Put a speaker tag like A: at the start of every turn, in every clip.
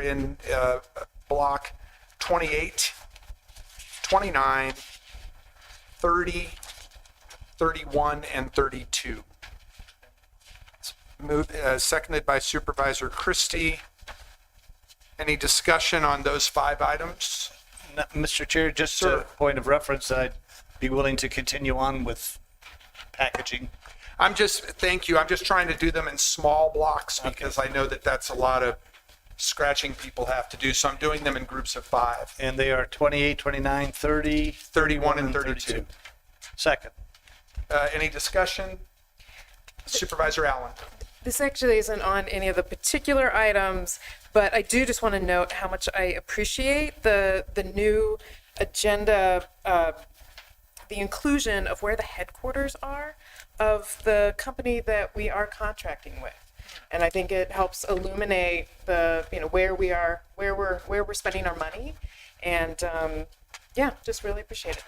A: in uh, block 28, 29, 30, 31, and 32. Moved, uh, seconded by Supervisor Christie. Any discussion on those five items?
B: No, Mr. Chair, just
A: Sir.
B: a point of reference, I'd be willing to continue on with packaging.
A: I'm just, thank you. I'm just trying to do them in small blocks because I know that that's a lot of scratching people have to do. So I'm doing them in groups of five,
B: And they are 28, 29, 30,
A: 31 and 32.
B: Second.
A: Uh, Any discussion? Supervisor Allen.
C: This actually isn't on any of the particular items, but I do just want to note how much I appreciate the, the new agenda, uh, the inclusion of where the headquarters are of the company that we are contracting with. And I think it helps illuminate the, you know, where we are, where we're, where we're spending our money. And, um, yeah, just really appreciate it.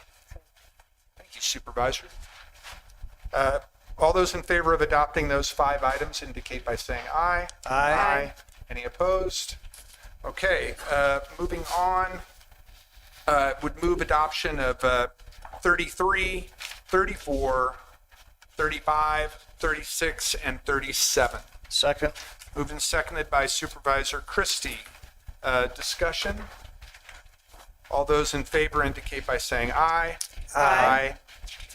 A: Thank you, Supervisor. Uh, All those in favor of adopting those five items indicate by saying aye.
B: Aye.
A: Any opposed? Okay, uh, moving on, uh, would move adoption of uh, 33, 34, 35, 36, and 37.
B: Second.
A: Moved and seconded by Supervisor Christie. Uh, Discussion? All those in favor indicate by saying aye. Aye.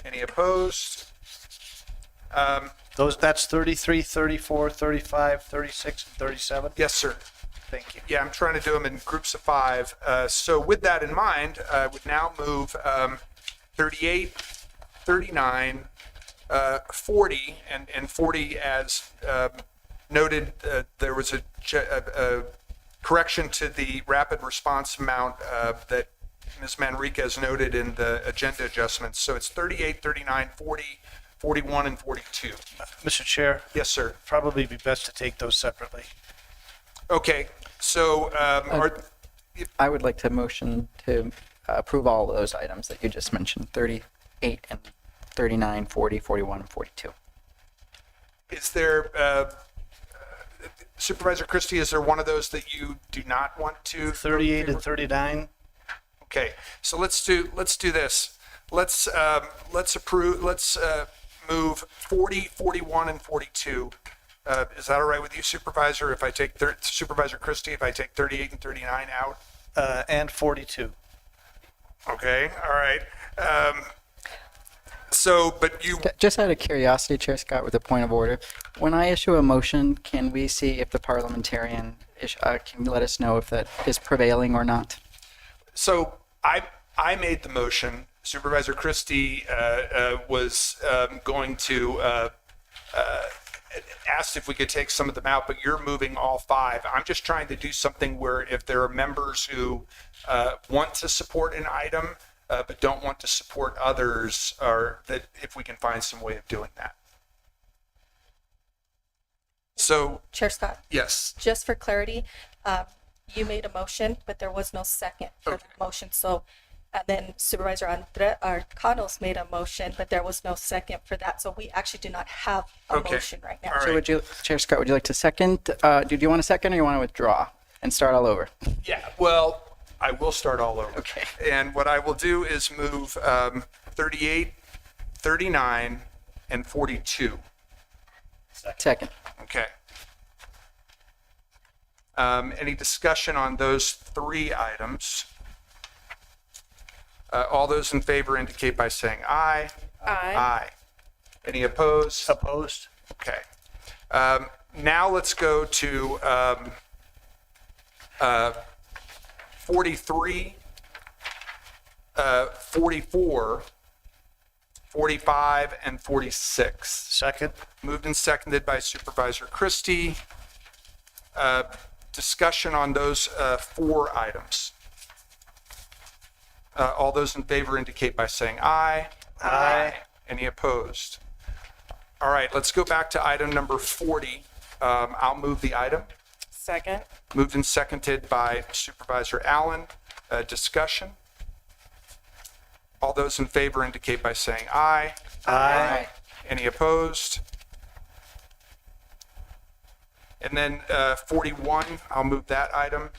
A: Any opposed? Um,
B: Those, that's 33, 34, 35, 36, and 37.
A: Yes, sir.
B: Thank you.
A: Yeah, I'm trying to do them in groups of five. Uh, So with that in mind, uh, I would now move um, 38, 39, uh, 40, and and 40 as um, noted, uh, there was a ch- a- a correction to the rapid response amount uh, that Ms. Manriquez noted in the agenda adjustments. So it's 38, 39, 40, 41, and 42.
B: Mr. Chair,
A: Yes, sir.
B: probably be best to take those separately.
A: Okay, so um, are,
D: I would like to motion to uh, approve all of those items that you just mentioned, 38 and 39, 40, 41, and 42.
A: Is there, uh, Supervisor Christie, is there one of those that you do not want to?
B: 38 and 39.
A: Okay, so let's do, let's do this. Let's, um, let's approve, let's uh, move 40, 41, and 42. Uh, Is that all right with you Supervisor, if I take thir- Supervisor Christie, if I take 38 and 39 out?
B: Uh, and 42.
A: Okay, all right. Um, So, but you,
D: Just out of curiosity, Chair Scott, with a point of order, when I issue a motion, can we see if the parliamentarian is- uh, can let us know if that is prevailing or not?
A: So I I made the motion. Supervisor Christie uh, uh, was um, going to uh, uh, asked if we could take some of them out, but you're moving all five. I'm just trying to do something where if there are members who uh, want to support an item uh, but don't want to support others, or that if we can find some way of doing that. So
E: Chair Scott,
A: yes,
E: just for clarity, uh, you made a motion, but there was no second for the motion. So, and then Supervisor Andre, or Connell's made a motion, but there was no second for that. So we actually do not have a
A: Okay.
E: motion right now.
A: All
D: So would you, Chair Scott, would you like to second? uh, Do you want a second or you want to withdraw and start all over?
A: Yeah, well, I will start all over.
D: Okay.
A: And what I will do is move um, 38, 39, and 42.
D: Second.
A: Okay. Um, Any discussion on those three items? Uh, All those in favor indicate by saying aye.
C: Aye.
A: Aye. Any opposed?
B: Opposed?
A: Okay. Um, now let's go to um, uh, 43, uh, 44, 45, and 46.
B: Second.
A: Moved and seconded by Supervisor Christie. Uh, discussion on those uh, four items. Uh, all those in favor indicate by saying aye. Aye. Any opposed? All right, let's go back to item number 40. Um, I'll move the item.
C: Second.
A: Moved and seconded by Supervisor Allen. Uh, discussion. All those in favor indicate by saying aye.
B: Aye.
A: Any opposed? And then uh, 41, I'll move that item.